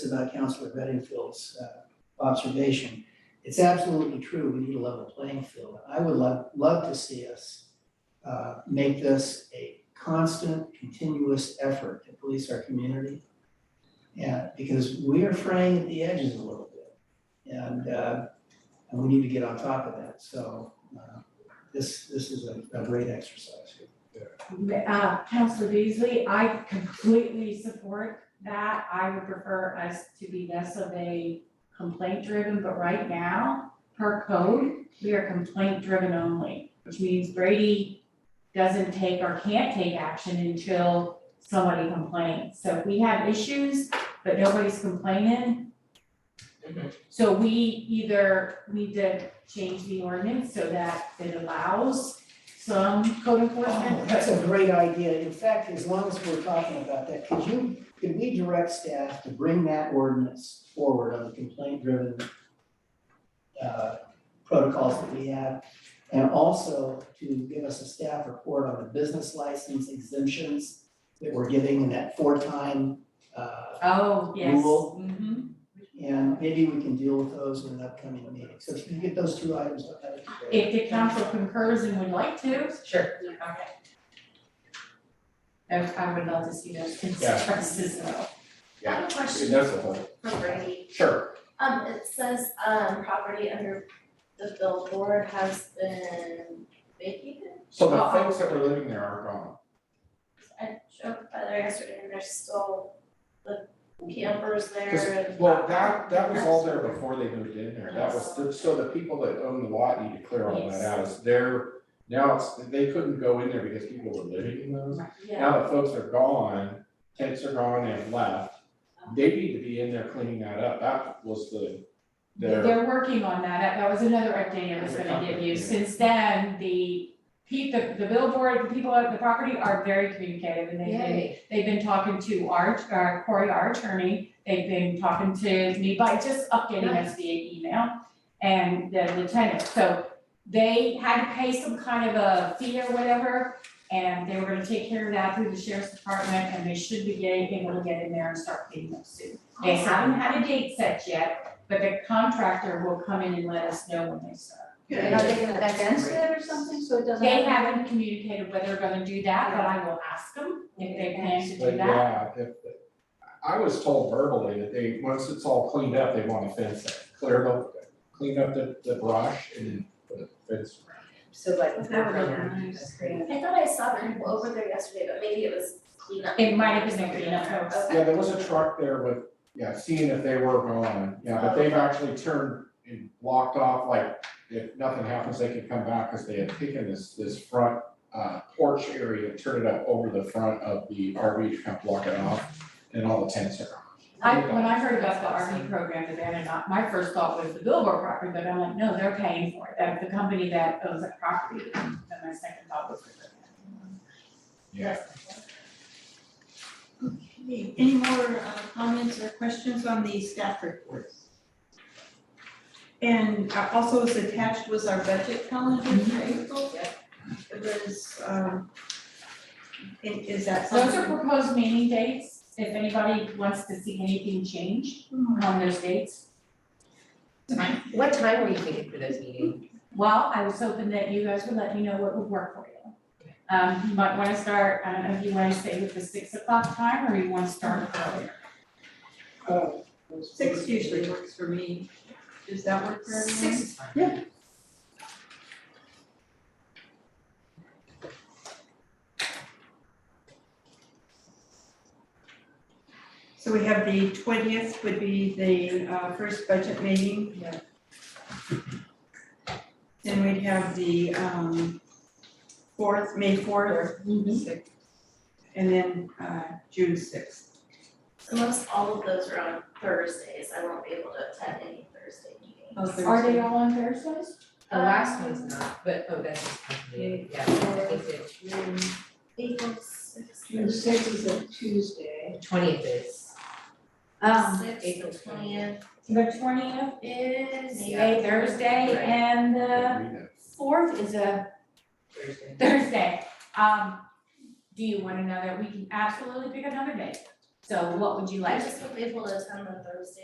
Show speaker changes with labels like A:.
A: about Counselor Bedingfield's uh, observation. It's absolutely true, we need a level playing field. I would love, love to see us uh, make this a constant, continuous effort to police our community. Yeah, because we are fraying at the edges a little bit. And, uh, and we need to get on top of that, so uh, this, this is a, a great exercise.
B: Uh, Counselor Beasley, I completely support that. I would prefer us to be less of a complaint driven, but right now, per code, we are complaint driven only, which means Brady doesn't take or can't take action until somebody complains. So if we have issues, but nobody's complaining. So we either need to change the ordinance so that it allows some code enforcement, but
A: That's a great idea. In fact, as long as we're talking about that, could you, could we direct staff to bring that ordinance forward on the complaint-driven uh, protocols that we have? And also to give us a staff report on the business license exemptions that we're giving in that four-time, uh,
B: Oh, yes.
A: Rule.
B: Mhm.
A: and maybe we can deal with those in an upcoming meeting. So if you can get those two items up, that would be great.
B: If the council concurs and would like to.
C: Sure.
B: Okay. I I would love to see those
D: Yeah.
B: constructs as well.
E: I have a
D: It
E: question
D: does apply.
E: for Brady.
D: Sure.
E: Um, it says, um, property under the billboard has been vacated.
D: So the folks that were living there are gone.
E: I drove by there yesterday and there's still the campers there
D: 'Cause-
E: and.
D: Well, that, that was all there before they moved in there. That was, the- so the people that own the lot need to clear all that out. It's their, now it's, they couldn't go in there because people were living in those.
E: Yeah,
D: Now the folks are gone, tents are gone, they have left. They need to be in there cleaning that up. That was the, their,
B: They're working on that. That- That was another update I was gonna give you. Since then, the pe- the the billboard, the people at the property are very communicative and they they they've been talking to our, uh, Corey, our attorney. They've been talking to me by just updating us via email and the lieutenant. So they had to pay some kind of a fee or whatever, and they were gonna take care of that through the sheriff's department, and they should be getting, able to get in there and start paying them soon. They haven't had a date set yet, but the contractor will come in and let us know when they start.
C: And are they gonna fence it or something, so it doesn't?
B: They haven't communicated whether they're gonna do that, but I will ask them if they plan to
D: but
B: do that.
D: yeah, if, I was told verbally that they, once it's all cleaned up, they want to fence it. Clear up, clean up the, the brush and then put a fence around.
C: So like,
B: That's
C: not right
B: really
C: now,
B: nice.
C: that's great.
E: I thought I saw them over there yesterday, but maybe it was cleanup.
B: It might have been a cleanup, I would say.
D: Yeah, there was a truck there with, yeah, seeing if they were gone, yeah, but they've actually turned and blocked off, like, if nothing happens, they can come back, cause they had taken this, this front uh, porch area, and turned it up over the front of the RV to kind of block it off, and all the tents are gone.
B: I, when I heard about the RV program, that they're not, my first thought was the billboard property, but I'm like, no, they're paying for it, that the company that owns that property, then my second thought was.
D: Yeah.
F: Okay, any more uh, comments or questions on the staff reports? And uh, also as attached was our budget calendar for April. It was, um, i- is that
B: Those are
F: something?
B: proposed meeting dates, if anybody wants to see anything change on those dates.
C: What time were you thinking for those meetings?
B: Well, I was hoping that you guys would let me know what would work for you. Um, you might wanna start, I don't know if you wanna stay with the six o'clock time, or you wanna start earlier.
F: Six usually works for me. Does that work for everyone?
C: Six is fine.
F: So we have the twentieth would be the uh, first budget meeting.
C: Yeah.
F: Then we'd have the um, fourth, May fourth,
E: Mm-hmm.
C: Six.
F: and then uh, June sixth.
E: Most all of those are on Thursdays. I won't be able to attend any Oh, Thursday meeting.
B: Are they all on Thursdays?
C: The last one's
E: Um,
C: not, but, oh, that's just complicated, yeah, it's the
E: April sixth.
G: sixth is a Tuesday.
C: twentieth is,
B: Um,
C: April
E: Sixth, the twentieth.
B: The twentieth is
E: Yeah.
B: a Thursday and the
D: Read it.
B: fourth is a
C: Thursday.
B: Thursday. Um, do you want another, we can absolutely pick another day. So what would you
E: I
B: like?
E: just hope they told us on the Thursday